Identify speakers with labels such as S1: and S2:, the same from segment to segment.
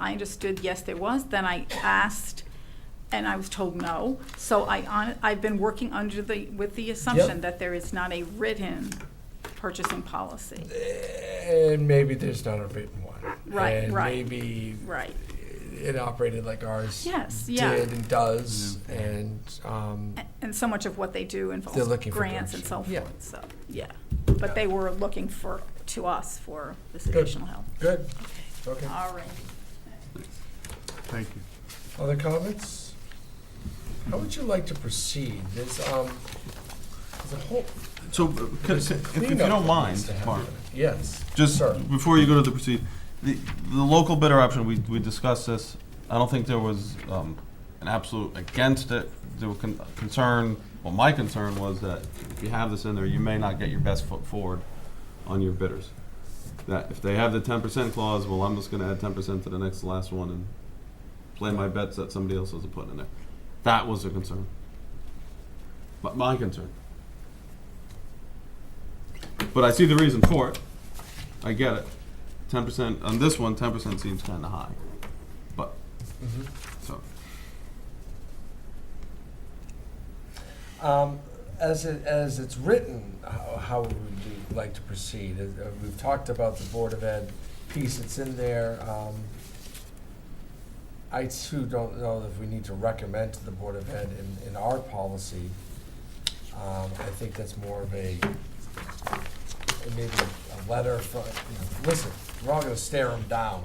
S1: I understood, yes, there was. Then I asked, and I was told no. So I, hon- I've been working under the, with the assumption that there is not a written purchasing policy.
S2: And maybe there's not a written one.
S1: Right,
S2: and
S1: right,
S2: Maybe
S1: Right.
S2: it operated like ours.
S1: Yes, yeah.
S2: Did and does, and um,
S1: A- And so much of what they do
S2: They're
S1: involves
S2: looking for
S1: grants and so
S2: direction. Yeah.
S1: forth, so, yeah. But they were looking for, to us for this
S2: Good.
S1: additional help.
S2: good. Okay.
S1: All right.
S3: Thank you.
S2: Other comments? How would you like to proceed? There's um, there's a whole
S3: So, uh, c- c- if if you
S2: cleanup
S3: don't
S2: that needs
S3: mind,
S2: to happen.
S3: Mark,
S2: Yes.
S3: just
S2: Sure.
S3: before you go to the proceed, the, the local bidder option, we, we discussed this. I don't think there was, um, an absolute against it. There were con- concern, well, my concern was that if you have this in there, you may not get your best foot forward on your bidders. That if they have the ten percent clause, well, I'm just gonna add ten percent to the next last one and play my bets that somebody else isn't putting in there. That was a concern. But my concern. But I see the reason for it. I get it. Ten percent on this one, ten percent seems kind of high. But Mm-hmm.
S2: Mhm.
S3: so
S2: Um, As it, as it's written, how how would you like to proceed? Uh, uh, We've talked about the Board of Ed piece, it's in there. Um, I too don't know if we need to recommend to the Board of Ed in, in our policy. Um, I think that's more of a, maybe a letter from, you know, listen, we're all gonna stare them down.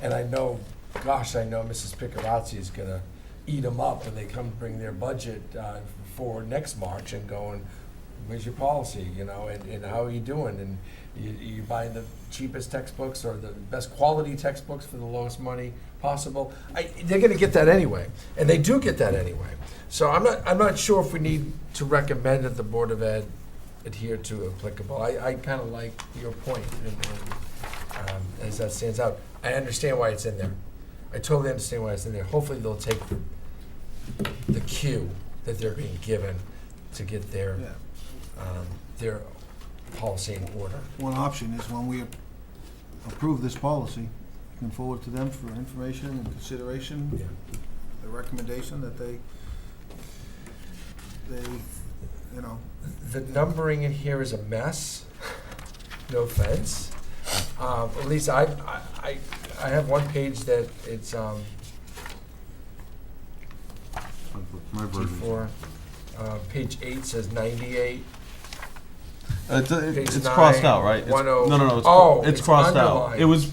S2: And I know, gosh, I know Mrs. Picarazzi is gonna eat them up when they come bring their budget uh, for next March and going, where's your policy, you know, and, and how are you doing? And you, you buying the cheapest textbooks or the best quality textbooks for the lowest money possible? I, they're gonna get that anyway, and they do get that anyway. So I'm not, I'm not sure if we need to recommend that the Board of Ed adhere to applicable. I, I kinda like your point and, and, um, as that stands out. I understand why it's in there. I totally understand why it's in there. Hopefully they'll take the cue that they're being given to get their, um, their policy in order.
S4: One option is when we approve this policy, you can forward to them for information and consideration, the recommendation that they, they, you know,
S2: The numbering in here is a mess, no offense. Um, at least I, I, I- I have one page that it's, um,
S3: my
S2: G
S3: version.
S2: four, uh, page eight says ninety-eight.
S3: Uh, It's,
S2: Page
S3: it's crossed
S2: nine,
S3: out, right? It's-
S2: one oh-
S3: No, no, no. It's,
S2: oh,
S3: it's
S2: it's
S3: crossed out.
S2: underlined.
S3: It was,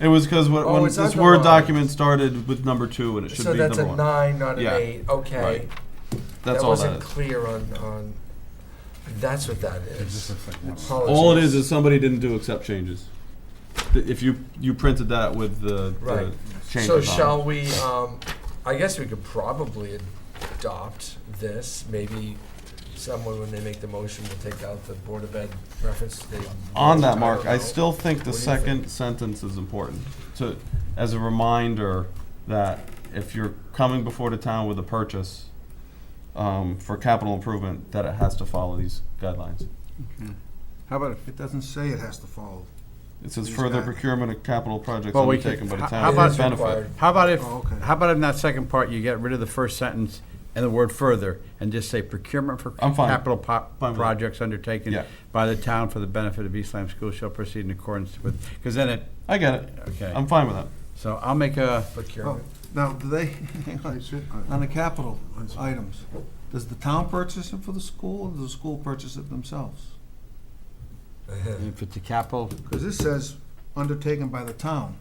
S3: it was because when,
S2: Oh,
S3: when
S2: it's
S3: this Word
S2: underlined.
S3: document started with number two and it should
S2: So
S3: be
S2: that's
S3: number
S2: a
S3: one.
S2: nine, not an
S3: Yeah.
S2: eight, okay.
S3: Right. that's all
S2: wasn't
S3: that is.
S2: clear on, on, that's what that is.
S3: All it
S2: Apologies.
S3: is is somebody didn't do accept changes. Th- If you you printed that with the,
S2: Right.
S3: the changes.
S2: So
S3: on it.
S2: shall we, um, I guess we could probably adopt this, maybe someone, when they make the motion, will take out the Board of Ed reference. They-
S3: On that,
S2: don't
S3: Mark, I
S2: know.
S3: still think the
S2: What do you think?
S3: second sentence is important. To, as a reminder that if you're coming before the town with a purchase um, for capital improvement, that it has to follow these guidelines.
S5: How about,
S4: it doesn't say it has to follow.
S3: It says
S4: These
S3: further
S4: guy-
S3: procurement of capital projects
S5: Well, we
S3: undertaken by
S5: could-
S3: the
S5: h-
S3: town
S5: how
S3: for
S2: It
S5: about-
S3: its
S2: is
S3: benefit.
S2: required.
S5: how about if,
S4: Oh, okay.
S5: how about in that second part, you get rid of the first sentence and the word further, and just say procurement for
S3: I'm fine.
S5: capital po-
S3: Fine with it.
S5: projects undertaken
S3: Yeah.
S5: by the town for the benefit of East Lyme Schools shall proceed in accordance with, because then it,
S3: I get it.
S5: Okay.
S3: I'm fine with that.
S5: so I'll make a,
S4: oh,
S2: Procurement.
S4: now, do they, hang on, on the capital items, does the town purchase it for the school, or does the school purchase it themselves?
S5: if it's a capital,
S4: Because this says undertaken by the town.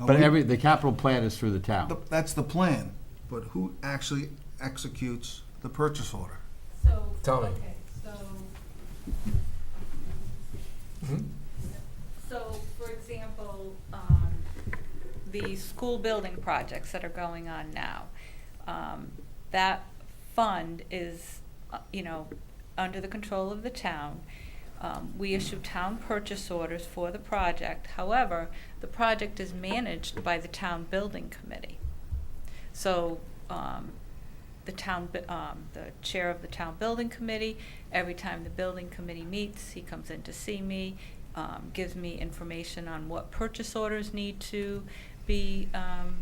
S4: Are
S5: but
S4: Oh, we-
S5: every, the capital plan is through the town.
S4: th- That's the plan, but who actually executes the purchase order?
S6: So,
S2: Tell me.
S6: okay, so.
S2: Mm-hmm.
S6: So, for example, um, the school building projects that are going on now, um, that fund is, uh, you know, under the control of the town. Um, we issue town purchase orders for the project, however, the project is managed by the town building committee. So, um, the town, bu- um, the chair of the town building committee, every time the building committee meets, he comes in to see me, um, gives me information on what purchase orders need to be, um,